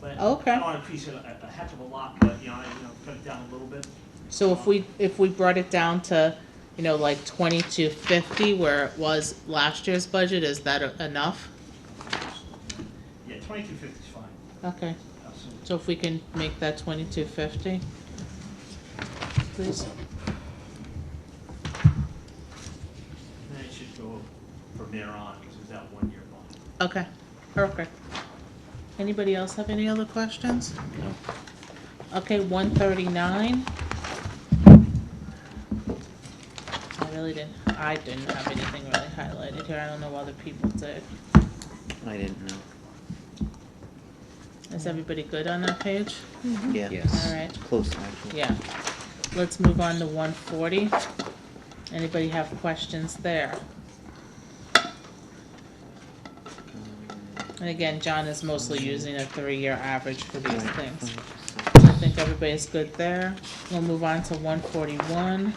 but Okay. I don't increase it a, a heck of a lot, but, you know, I, you know, cut it down a little bit. So if we, if we brought it down to, you know, like twenty-two fifty where it was last year's budget, is that e- enough? Yeah, twenty-two fifty is fine, Okay, absolutely. so if we can make that twenty-two fifty? Please, And then it should go from there on, because it's that one-year bond. okay, okay. Anybody else have any other questions? No. Okay, one thirty-nine. I really didn't, I didn't have anything really highlighted here, I don't know other people did. I didn't know. Is everybody good on that page? Yeah. Yes. Mm-hmm. All right. Close, actually. Yeah, let's move on to one forty. Anybody have questions there? And again, John is mostly using a three-year average for these things. I think everybody's good there. We'll move on to one forty-one.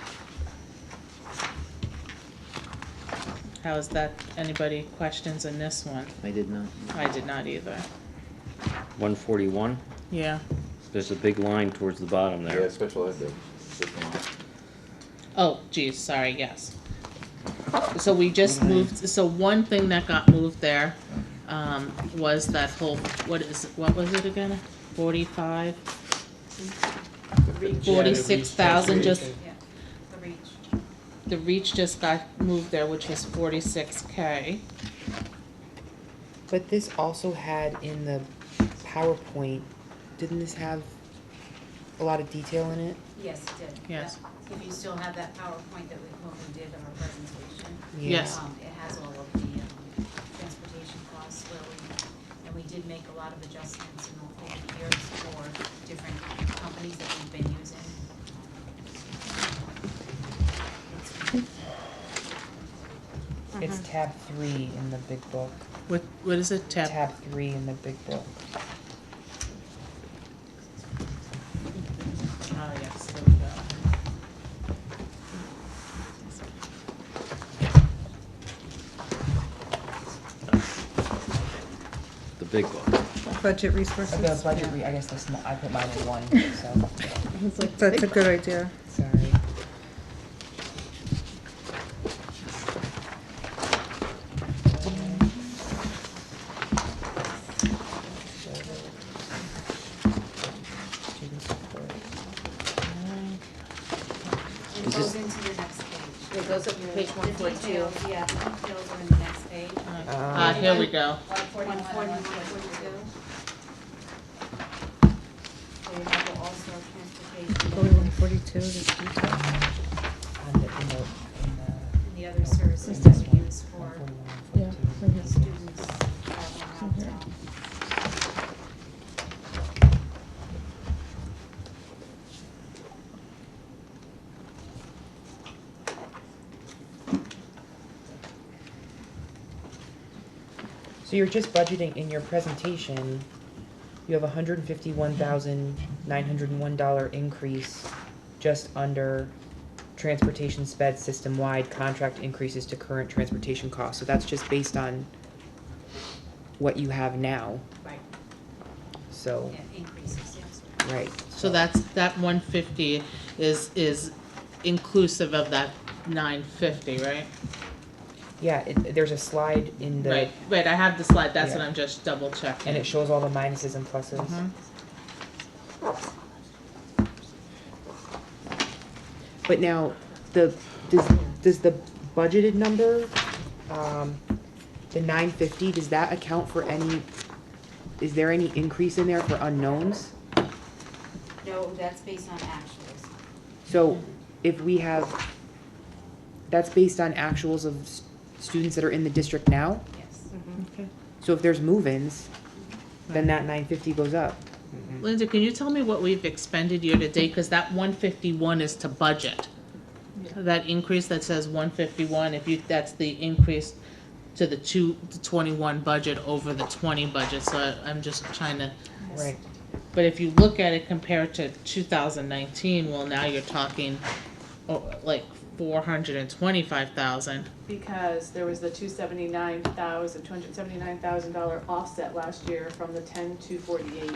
How is that, anybody questions in this one? I did not. I did not either. One forty-one, Yeah, there's a big line towards the bottom Yeah, there. special ed, though. Different line. oh geez, sorry, yes. So we just moved, so one thing that got moved there, um, was that whole, what is, what was it again? Forty-five, forty-six thousand just Yeah, the reach. The reach just got moved there, which was forty-six K. But this also had in the PowerPoint, didn't this have a lot of detail in it? Yes, it did. Yes. Yeah. If you still have that PowerPoint that we, when we did our presentation. Yes. um, It has all of the um, transportation costs where we, and we did make a lot of adjustments in the- over the years for different companies that we've been using. It's tab three in the big book. What, what is it, tab? Tab three in the big book. Oh, yes, there we go. The big book. Budget The resources. budget, re- I guess this, mo- I put mine in one, so, That's a good idea. sorry. Student support. And It goes into the next page. It goes up to page one The forty-two. details, yeah, the details are in the next page. Ah, here we go. One forty-one and one forty-two. So you have the all-star transportation. Forty-one, forty-two, this detail. On the, in the, in the. and the other services that we use for 141, 142. Yeah. students traveling out of town. So you're just budgeting in your presentation, you have a hundred and fifty-one thousand, nine hundred and one dollar increase just under transportation sped system-wide contract increases to current transportation costs, so that's just based on what you have now, Right, so, yeah, increases, yes. right. So that's, that one fifty is, is inclusive of that nine fifty, right? Yeah, it, there's a slide in the, Right, right, I have the slide, that's what uh, Yeah. I'm just double checking. and it shows all the minuses and pluses. Mhm. But now, the, does, does the budgeted number, um, the nine fifty, does that account for any, is there any increase in there for unknowns? No, that's based on actuals. So if we have, that's based on actuals of s- students that are in the district now? yes. So if there's move-ins, then that nine fifty goes up. Linda, can you tell me what we've expended year-to-date, cause that one fifty-one is to budget. That increase that says one fifty-one, if you, that's the increase to the two, the twenty-one budget over the twenty budget, so I- I'm just trying to. Right. But if you look at it compared to two thousand nineteen, well, now you're talking, oh, like, four hundred and twenty-five thousand. because there was the two seventy-nine thousand, two hundred seventy-nine thousand dollar offset last year from the ten two forty-eight.